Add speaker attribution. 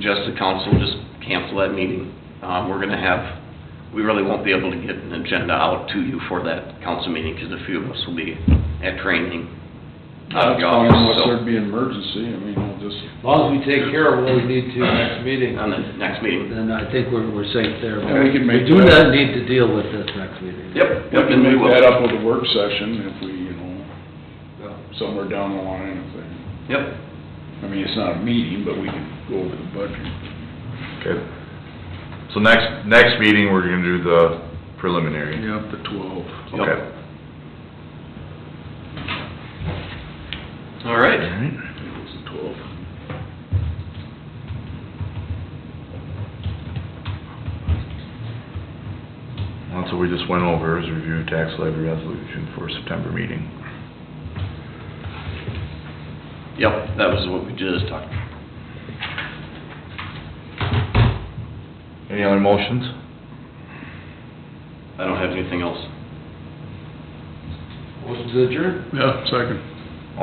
Speaker 1: just the council, just cancel that meeting. Um, we're gonna have, we really won't be able to get an agenda out to you for that council meeting, because a few of us will be at training. out of
Speaker 2: Uh, That's
Speaker 1: the
Speaker 2: fine,
Speaker 1: office,
Speaker 2: unless
Speaker 1: so-
Speaker 2: there'd be an emergency, I mean, I'll just,
Speaker 3: As long as we take care of what we need to next meeting,
Speaker 1: On the next meeting.
Speaker 3: then I think we're, we're safe there.
Speaker 2: Yeah, we can make
Speaker 3: do
Speaker 2: that.
Speaker 3: not need to deal with this next meeting.
Speaker 1: Yep,
Speaker 2: we
Speaker 1: yep,
Speaker 2: can
Speaker 1: and we
Speaker 2: make
Speaker 1: will.
Speaker 2: that up with a work session if we, you know,
Speaker 3: Yeah.
Speaker 2: somewhere down the line, if they,
Speaker 1: Yep,
Speaker 2: I mean, it's not a meeting, but we can go over the budget.
Speaker 4: Okay. So next, next meeting, we're gonna do the preliminary.
Speaker 2: Yep, the twelve.
Speaker 1: Yep.
Speaker 4: Okay.
Speaker 1: all right.
Speaker 4: Alright.
Speaker 2: It's the twelve.
Speaker 4: That's what we just went over, is review tax levy resolution for September meeting.
Speaker 1: Yep, that was what we just talked about.
Speaker 4: Any other motions?
Speaker 1: I don't have anything else.
Speaker 3: Motion to adjourn?
Speaker 2: Yeah, second.